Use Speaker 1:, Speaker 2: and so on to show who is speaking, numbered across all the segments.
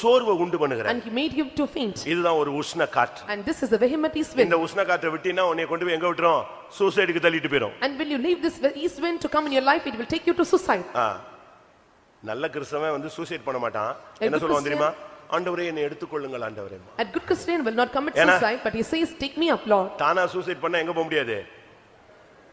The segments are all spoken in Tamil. Speaker 1: சோர்வை உண்டு பண்ணுகிறேன்
Speaker 2: and he made him to faint.
Speaker 1: இதுதான் ஒரு உஷ்ண காற்று
Speaker 2: And this is the vehement east wind.
Speaker 1: இந்த உஷ்ண காற்றை விட்டினா உன்னை கொண்டு போய் எங்க விட்டுரும் சூசைடுக்கு தள்ளிட்டு போயிடும்
Speaker 2: And when you leave this east wind to come in your life, it will take you to suicide.
Speaker 1: ஆ. நல்ல கிறிஸ்தவன் வந்து சூசைட் பண்ண மாட்டான்
Speaker 2: A
Speaker 1: என்ன
Speaker 2: good
Speaker 1: சொல்லுவான் தெரியுமா
Speaker 2: Christian-
Speaker 1: ஆண்டவரே என்னை எடுத்துக்கொள்ளுங்கள் ஆண்டவரே
Speaker 2: A good Christian will not commit
Speaker 1: ஏன்னா-
Speaker 2: suicide, but he says, "Take me up, Lord."
Speaker 1: தானா சூசைட் பண்ண எங்க போக முடியாது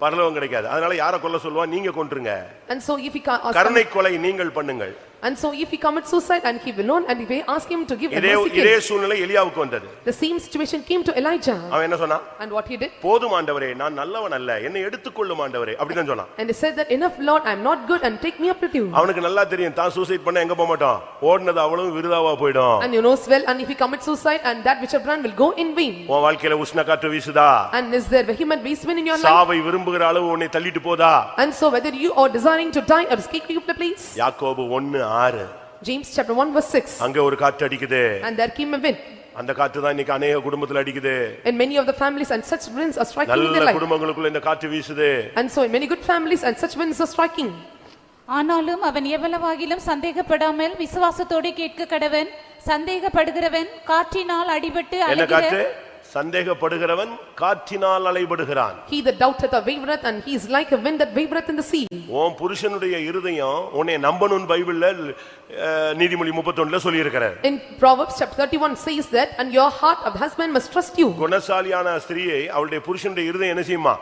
Speaker 1: பரலோகம் கிடைக்காது அதனால யாரை கொல்ல சொல்லுவான் நீங்க கொன்றுங்க
Speaker 2: And so if he ca- ask-
Speaker 1: கருணை கொலை நீங்கள் பண்ணுங்கள்
Speaker 2: and so if he commits suicide and he will not, and if they ask him to give a
Speaker 1: இதே
Speaker 2: mercy
Speaker 1: இதே
Speaker 2: gift,
Speaker 1: சூழ்நிலை எலியாவுக்கு வந்தது
Speaker 2: the same situation came to Elijah.
Speaker 1: அவன் என்ன சொன்னான்
Speaker 2: And what he did?
Speaker 1: போதும் ஆண்டவரே நான் நல்லவன் அல்ல என்னை எடுத்துக்கொள்ளும் ஆண்டவரே அப்படிதான் சொன்னான்
Speaker 2: And he said that, "Enough, Lord, I am not good, and take me up with you."
Speaker 1: அவனுக்கு நல்லா தெரியும் தான் சூசைட் பண்ண எங்க போக மாட்டான் ஓடுனது அவ்வளவு விருதாவா போயிடும்
Speaker 2: And you knows well, and if he commits suicide, and that which have done will go in vain.
Speaker 1: உன் வாழ்க்கையில உஷ்ண காற்று வீசுதா
Speaker 2: And is there vehement east wind in your life?
Speaker 1: சாவை விரும்புகிற அளவு உன்னை தள்ளிட்டு போதா
Speaker 2: And so whether you are desiring to die or escape you the place,
Speaker 1: யாக்கோபு ஒன்னு ஆறு
Speaker 2: James chapter one verse six,
Speaker 1: அங்க ஒரு காற்று அடிக்குது
Speaker 2: and there came a wind,
Speaker 1: அந்த காற்று தான் இன்னைக்கு அநேக குடும்பத்துல அடிக்குது
Speaker 2: and many of the families and such winds are striking in their
Speaker 1: நல்ல
Speaker 2: life.
Speaker 1: குடும்பங்களுக்குள்ள இந்த காற்று வீசுது
Speaker 2: And so in many good families and such winds are striking.
Speaker 3: ஆனாலும் அவன் எவ்வளவாகிலும் சந்தேகப்படாமல் விசுவாசத்தோடு கேட்க கடவன் சந்தேகப்படுகிறவன் காற்றினால் அடிபட்டு
Speaker 1: என்ன
Speaker 3: அழுகிற
Speaker 1: காற்று சந்தேகப்படுகிறவன் காற்றினால் அலைபடுகிறான்
Speaker 2: He that doubteth or wavereth, and he is like a wind that wavereth in the sea.
Speaker 1: உன் புருஷனுடைய இருதயம் உன்னை நம்பணும் பைபிள்ல அஹ், நீதிமொழி முப்பத்தொன்னுல சொல்லியிருக்கிறார்
Speaker 2: In Proverbs chapter thirty-one says that, and your heart of husband must trust you,
Speaker 1: குணசாலியான ஸ்திரீயை அவளுடைய புருஷனுடைய இருதயம் என்ன செய்யுமா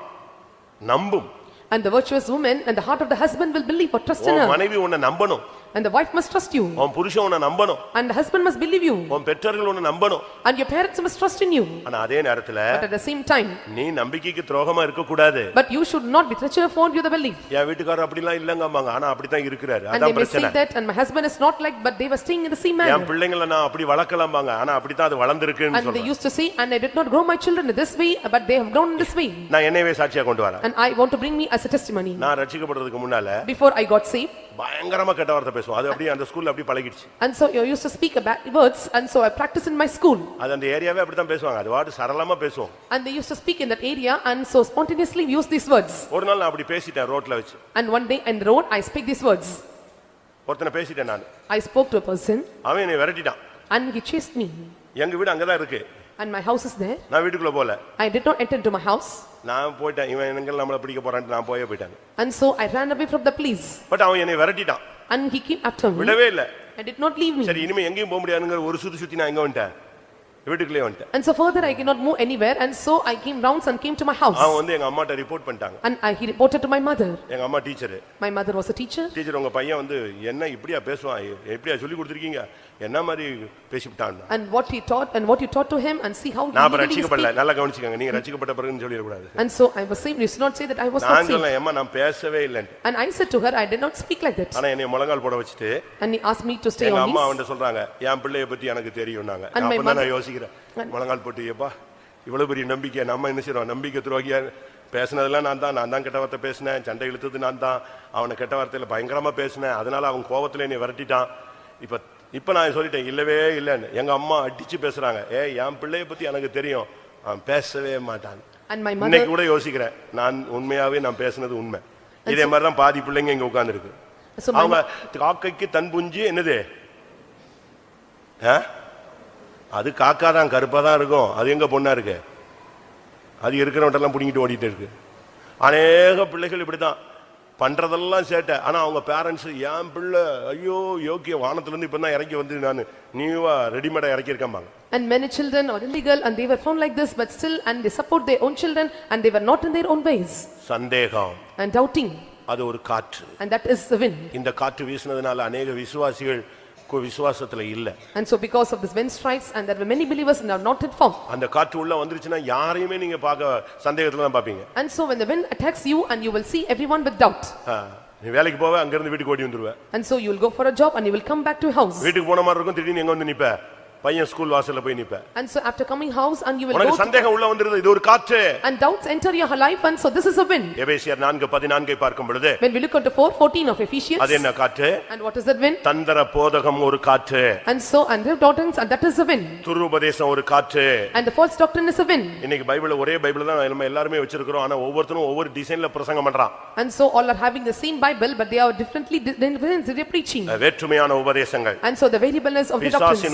Speaker 1: நம்பும்
Speaker 2: and the virtuous woman and the heart of the husband will believe or trust in
Speaker 1: உன்
Speaker 2: her,
Speaker 1: மனைவி உன்னை நம்பணும்
Speaker 2: and the wife must trust you,
Speaker 1: உன் புருஷன் உன்னை நம்பணும்
Speaker 2: and the husband must believe you,
Speaker 1: உன் பெற்றோர்கள் உன்னை நம்பணும்
Speaker 2: and your parents must trust in you.
Speaker 1: ஆனா அதே நேரத்துல
Speaker 2: But at the same time,
Speaker 1: நீ நம்பிக்கைக்கு துரோகமா இருக்க கூடாது
Speaker 2: but you should not be treacherous for your belief.
Speaker 1: என் வீட்டுக்காரர் அப்படிலாம் இல்லங்கம்பாங்க ஆனா அப்படித்தான் இருக்கிறாரு
Speaker 2: And they
Speaker 1: அதான்
Speaker 2: may say
Speaker 1: பிரச்சனை
Speaker 2: that, and my husband is not like, but they were staying in the same
Speaker 1: N
Speaker 2: manner.
Speaker 1: பிள்ளைங்களை நான் அப்படி வளர்க்கலாம்பாங்க ஆனா அப்படித்தான் அது வளர்ந்துருக்குன்னு
Speaker 2: And they
Speaker 1: சொல்றேன்
Speaker 2: used to say, and I did not grow my children in this way, but they have grown in this way.
Speaker 1: நான் என்னையவே சாட்சியா கொண்டு வரேன்
Speaker 2: And I want to bring me as a testimony.
Speaker 1: நான் ரட்சிக்கப்படுறதுக்கு முன்னால
Speaker 2: Before I got saved,
Speaker 1: பயங்கரமா கெட்ட வார்த்தை பேசுவோம் அது அப்படியே அந்த ஸ்கூல்ல அப்படியே பழகிடுச்சு
Speaker 2: and so I used to speak about words, and so I practiced in my school.
Speaker 1: அது அந்த ஏரியாவே அப்படித்தான் பேசுவாங்க அது வாட்டு சரளமா பேசுவோம்
Speaker 2: And they used to speak in that area, and so spontaneously we used these words.
Speaker 1: ஒரு நாள் நான் அப்படி பேசிட்டேன் ரோட்ல வச்சு
Speaker 2: And one day in the road, I speak these words.
Speaker 1: ஒருத்தனை பேசிட்டேன் நான்
Speaker 2: I spoke to a person,
Speaker 1: அவன் என்னை விரட்டிட்டான்
Speaker 2: and he chased me,
Speaker 1: எங்க வீடு அங்கதான் இருக்கு
Speaker 2: and my house is there.
Speaker 1: நான் வீட்டுக்குள்ள போல
Speaker 2: I did not enter into my house,
Speaker 1: நான் போயிட்டேன் இவன் எங்க நம்மளை பிடிக்க போறான்ட்டு நான் போயே போயிட்டேன்
Speaker 2: and so I ran away from the police.
Speaker 1: But அவன் என்னை விரட்டிட்டான்
Speaker 2: And he came after me
Speaker 1: விடவே இல்ல
Speaker 2: and did not leave me.
Speaker 1: சரி இனிமே எங்கேயும் போக முடியாதுங்கிற ஒரு சுத்தி சுத்தி நான் எங்க வந்துட்டேன் வீட்டுக்குள்ளே வந்துட்டேன்
Speaker 2: And so further I cannot move anywhere and so I came rounds and came to my
Speaker 1: அவன்
Speaker 2: house.
Speaker 1: வந்து எங்க அம்மாட்ட ரிப்போர்ட் பண்ணிட்டாங்க
Speaker 2: And I, he reported to my mother.
Speaker 1: எங்க அம்மா teacher
Speaker 2: My mother was a teacher
Speaker 1: teacher உங்க பையன் வந்து என்ன இப்படியா பேசுவான் எப்படியா சொல்லி கொடுத்துருக்கீங்க என்ன மாதிரி பேசிவிட்டான்
Speaker 2: and what he taught and what you taught to him and see how.
Speaker 1: நான் அப்ப
Speaker 2: legally you
Speaker 1: ரட்சிக்கப்படல
Speaker 2: speak.
Speaker 1: நல்லா கவனிச்சுக்கோங்க நீங்க ரட்சிக்கப்பட்ட பிறகுன்னு சொல்லிடக்கூடாது
Speaker 2: And so I was saved. You should not say that I was not
Speaker 1: நான்
Speaker 2: saved.
Speaker 1: சொன்னேன் ஏம்மா நான் பேசவே இல்லைன்ட்டு
Speaker 2: And I said to her, I did not speak like that.
Speaker 1: ஆனா என்னை முழங்கால் போட வச்சுட்டு
Speaker 2: And he asked me to stay
Speaker 1: எங்க
Speaker 2: on
Speaker 1: அம்மா
Speaker 2: knees.
Speaker 1: அவன்கிட்ட சொல்றாங்க என் பிள்ளைய பத்தி எனக்கு தெரியும்னாங்க
Speaker 2: And my
Speaker 1: அப்ப தான்
Speaker 2: mother-
Speaker 1: நான் யோசிக்கிறேன் முழங்கால் போட்டு ஏப்பா இவ்வளவு பெரிய நம்பிக்கை நம்ம என்ன செய்றோம் நம்பிக்கை துரோகியா பேசினதெல்லாம் நான் தான் நான் தான் கெட்ட வார்த்தை பேசினேன் சண்டை இழுத்தது நான் தான் அவனை கெட்ட வார்த்தையில பயங்கரமா பேசினேன் அதனால அவன் கோவத்துல என்னை விரட்டிட்டான் இப்ப இப்ப நான் சொல்லிட்டேன் இல்லவே இல்லைன்னு எங்க அம்மா அடிச்சு பேசுறாங்க ஏ என் பிள்ளைய பத்தி எனக்கு தெரியும் அவன் பேசவே மாட்டான்
Speaker 2: And my
Speaker 1: இன்னைக்கு
Speaker 2: mother,
Speaker 1: கூட யோசிக்கிறேன் நான் உண்மையாவே நான் பேசினது உண்மை இதே மாதிரி தான் பாதி பிள்ளைங்க இங்க உட்கார்ந்துருக்கு
Speaker 2: so
Speaker 1: அவங்க
Speaker 2: my,
Speaker 1: காக்கைக்கு தன் புஞ்சு என்னது ஆ? அது காக்கா தான் கருப்பா தான் இருக்கும் அது எங்க பொண்ணா இருக்கு அது இருக்கிறவட்டெல்லாம் பிடிங்கிட்டு ஓடிட்டு இருக்கு அநேக பிள்ளைகள் இப்படிதான் பண்றதெல்லாம் சேட்டை ஆனா அவங்க பேரண்ட்ஸ் என் பிள்ளை ஐயோ யோக்கிய வானத்துல இருந்து இப்பதான் இறங்கி வந்து நான் நீவா ரெடிமேடா இறக்கியிருக்கம்பாங்க
Speaker 2: and many children are illegal and they were found like this but still and they support their own children and they were not in their own ways.
Speaker 1: சந்தேகம்
Speaker 2: And doubting
Speaker 1: அது ஒரு காற்று
Speaker 2: and that is the wind.
Speaker 1: இந்த காற்று வீசினதுனால அநேக விசுவாசிகள் கு- விசுவாசத்துல இல்ல
Speaker 2: And so because of this wind strikes and there were many believers and are not yet formed.
Speaker 1: அந்த காற்று உள்ள வந்துருச்சுன்னா யாரையுமே நீங்க பார்க்க சந்தேகத்துல தான் பாப்பீங்க
Speaker 2: And so when the wind attacks you and you will see everyone with doubt.
Speaker 1: ஆ, நீ வேலைக்கு போவ அங்க இருந்து வீட்டுக்கு ஓடி வந்துருவ
Speaker 2: And so you will go for a job and you will come back to your house.
Speaker 1: வீட்டுக்கு போன மாதிரி இருக்கும் திடீர்னு எங்க வந்து நிப்ப பையன் ஸ்கூல் வாசல்ல போய் நிப்ப
Speaker 2: And so after coming house and you will go
Speaker 1: உனக்கு சந்தேகம் உள்ள வந்துருது இது ஒரு காற்று
Speaker 2: and doubts enter your life and so this is a wind.
Speaker 1: எபேசியர் நான்கு பதினான்கை பார்க்கும் பொழுது
Speaker 2: When we look at the four fourteen of Ephesians
Speaker 1: அது என்ன காற்று
Speaker 2: and what is that wind?
Speaker 1: தந்திர போதகம் ஒரு காற்று
Speaker 2: And so and the doctrines and that is a wind.
Speaker 1: துருபதேசம் ஒரு காற்று
Speaker 2: And the false doctrine is a wind.
Speaker 1: இன்னைக்கு பைபிள் ஒரே பைபிள் தான் நம்ம எல்லாருமே வச்சிருக்கிறோம் ஆனா ஒவ்வொருத்தரும் ஒவ்வொரு டிசைன்ல பிரசங்கம் பண்றான்
Speaker 2: And so all are having the same Bible but they are differently di- different- they're preaching.
Speaker 1: வேற்றுமையான உபதேசங்கள்
Speaker 2: And so the variableness of the doctrines.
Speaker 1: பிசாசின்